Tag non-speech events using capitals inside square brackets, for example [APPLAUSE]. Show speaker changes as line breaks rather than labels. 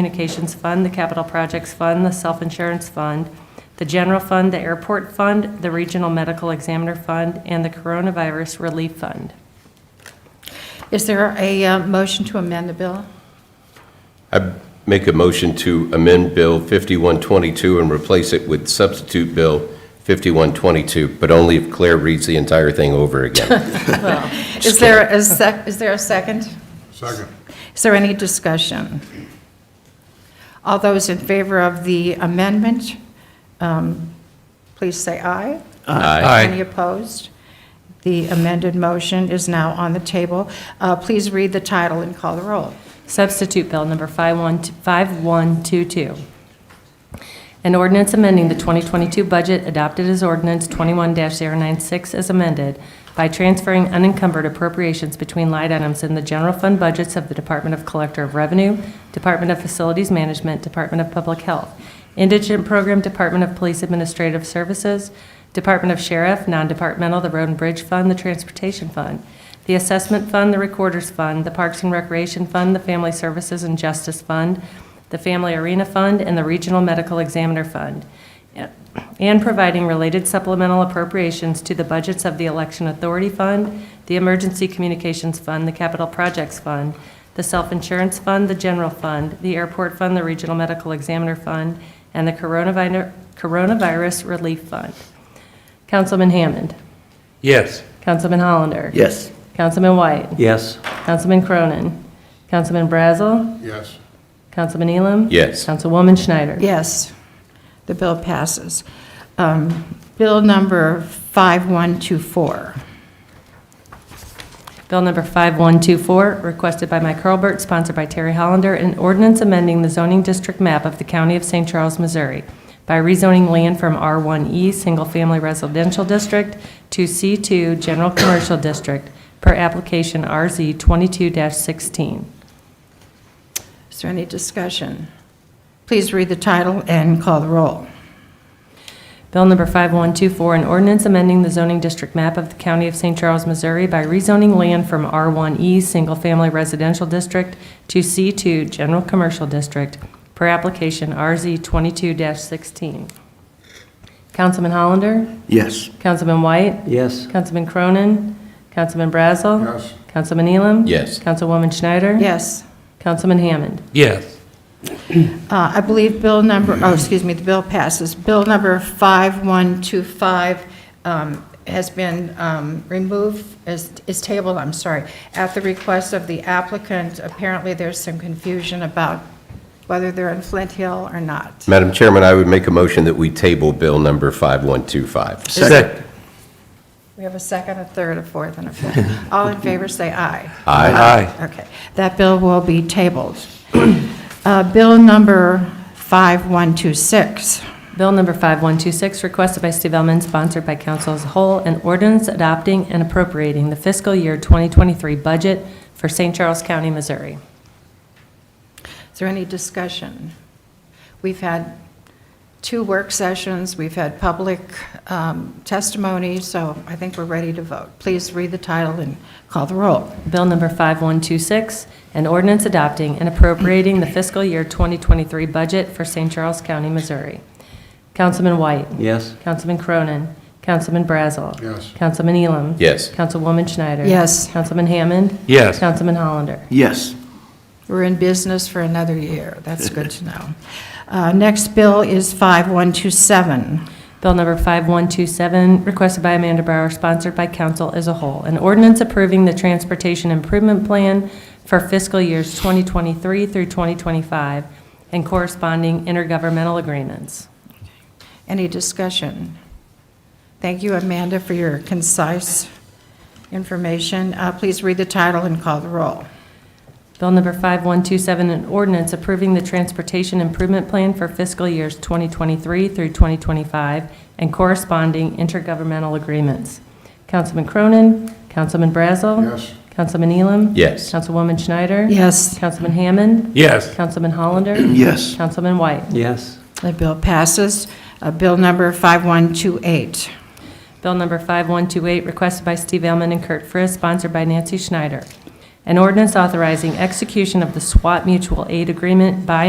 Communications Fund, the Capital Projects Fund, the Self-Insurance Fund, the General Fund, the Airport Fund, the Regional Medical Examiner Fund, and the Coronavirus Relief Fund.
Is there a uh, motion to amend the bill?
I make a motion to amend Bill 5122 and replace it with substitute Bill 5122, but only if Claire reads the entire thing over again.
Is there a sec, is there a second?
Second.
Is there any discussion? All those in favor of the amendment, um, please say aye.
Aye.
Any opposed? The amended motion is now on the table. Uh, Please read the title and call the roll.
Substitute Bill Number 51 5122. An ordinance amending the 2022 budget adopted as ordinance 21-096 as amended by transferring unencumbered appropriations between line items in the general fund budgets of the Department of Collector of Revenue, Department of Facilities Management, Department of Public Health, Indigent Program, Department of Police Administrative Services, Department of Sheriff, Non-Departmental, the Road and Bridge Fund, the Transportation Fund, the Assessment Fund, the Recorder's Fund, the Parks and Recreation Fund, the Family Services and Justice Fund, the Family Arena Fund, and the Regional Medical Examiner Fund, and providing related supplemental appropriations to the budgets of the Election Authority Fund, the Emergency Communications Fund, the Capital Projects Fund, the Self-Insurance Fund, the General Fund, the Airport Fund, the Regional Medical Examiner Fund, and the Coronavir- Coronavirus Relief Fund. Councilman Hammond.
Yes.
Councilman Hollander.
Yes.
Councilman White.
Yes.
Councilman Cronin. Councilman Brazel.
Yes.
Councilman Elam.
Yes.
Councilwoman Schneider.
Yes, the bill passes. Um, Bill number 5124.
Bill number 5124, requested by Mike Hurlbert, sponsored by Terry Hollander, an ordinance amending the zoning district map of the County of St. Charles, Missouri by rezoning land from R1E Single Family Residential District to C2 General Commercial District per application RZ 22-16.
Is there any discussion? Please read the title and call the roll.
Bill number 5124, an ordinance amending the zoning district map of the County of St. Charles, Missouri by rezoning land from R1E Single Family Residential District to C2 General Commercial District per application RZ 22-16. Councilman Hollander?
Yes.
Councilman White?
Yes.
Councilman Cronin? Councilman Brazel?
Yes.
Councilman Elam?
Yes.
Councilwoman Schneider?
Yes.
Councilman Hammond?
Yes.
Uh, I believe bill number, oh, excuse me, the bill passes. Bill number 5125 um, has been um, removed, is is tabled, I'm sorry, at the request of the applicant. Apparently, there's some confusion about whether they're in Flint Hill or not.
Madam Chairman, I would make a motion that we table Bill number 5125.
Second.
We have a second, a third, a fourth, and a fifth. All in favor, say aye.
Aye.
Okay, that bill will be tabled. [CLEARS THROAT] Uh, Bill number 5126.
Bill number 5126, requested by Steve Elman, sponsored by council as a whole, an ordinance adopting and appropriating the fiscal year 2023 budget for St. Charles County, Missouri.
Is there any discussion? We've had two work sessions, we've had public um, testimony, so I think we're ready to vote. Please read the title and call the roll.
Bill number 5126, an ordinance adopting and appropriating the fiscal year 2023 budget for St. Charles County, Missouri. Councilman White.
Yes.
Councilman Cronin. Councilman Brazel.
Yes.
Councilman Elam.
Yes.
Councilwoman Schneider.
Yes.
Councilman Hammond.
Yes.
Councilman Hollander.
Yes.
We're in business for another year, that's good to know. Uh, Next bill is 5127.
Bill number 5127, requested by Amanda Brower, sponsored by council as a whole. An ordinance approving the Transportation Improvement Plan for fiscal years 2023 through 2025 and corresponding intergovernmental agreements.
Any discussion? Thank you, Amanda, for your concise information. Uh, Please read the title and call the roll.
Bill number 5127, an ordinance approving the Transportation Improvement Plan for fiscal years 2023 through 2025 and corresponding intergovernmental agreements. Councilman Cronin, Councilman Brazel.
Yes.
Councilman Elam.
Yes.
Councilwoman Schneider.
Yes.
Councilman Hammond.
Yes.
Councilman Hollander.
Yes.
Councilman White.
Yes.
The bill passes. Uh, Bill number 5128.
Bill number 5128, requested by Steve Elman and Kurt Friz, sponsored by Nancy Schneider. An ordinance authorizing execution of the SWAT Mutual Aid Agreement by